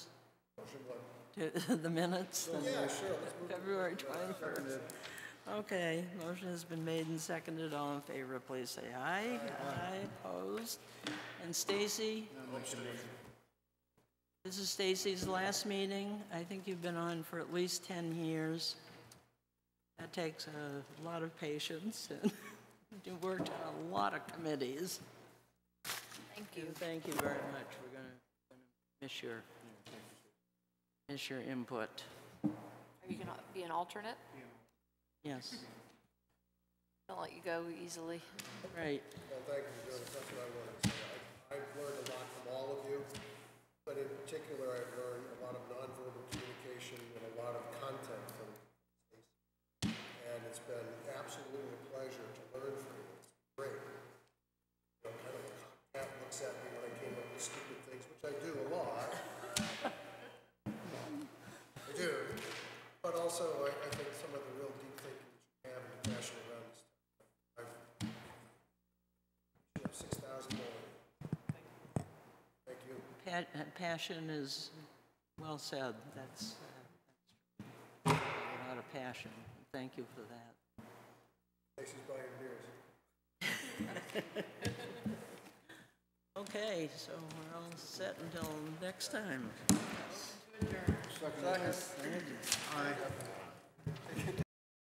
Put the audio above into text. to the minutes? Yeah, sure. February 21st. Okay, motion has been made and seconded. All in favor, please say aye. Aye, opposed. And Stacy? This is Stacy's last meeting. I think you've been on for at least 10 years. That takes a lot of patience, and you've worked on a lot of committees. Thank you. Thank you very much. We're going to miss your, miss your input. Are you going to be an alternate? Yes, Don't let you go easily. right. Well, thank you, Joe, that's what I wanted to say. I- I've learned a lot from all of you, but in particular, I've learned a lot of nonverbal communication and a lot of content from Stacy. And it's been absolutely a pleasure to learn from you. It's great. You know, kind of, Pat looks at me when I came up with stupid things, which I do a lot. I do. But also, I, I think some of the real deep thinking that you have and passion around this stuff. I've Six thousand dollars. Thank you. Pa- uh, Passion is well said. That's, uh, that's a lot of passion. Thank you for that. Places by your beers. Okay, so we're all set until next time.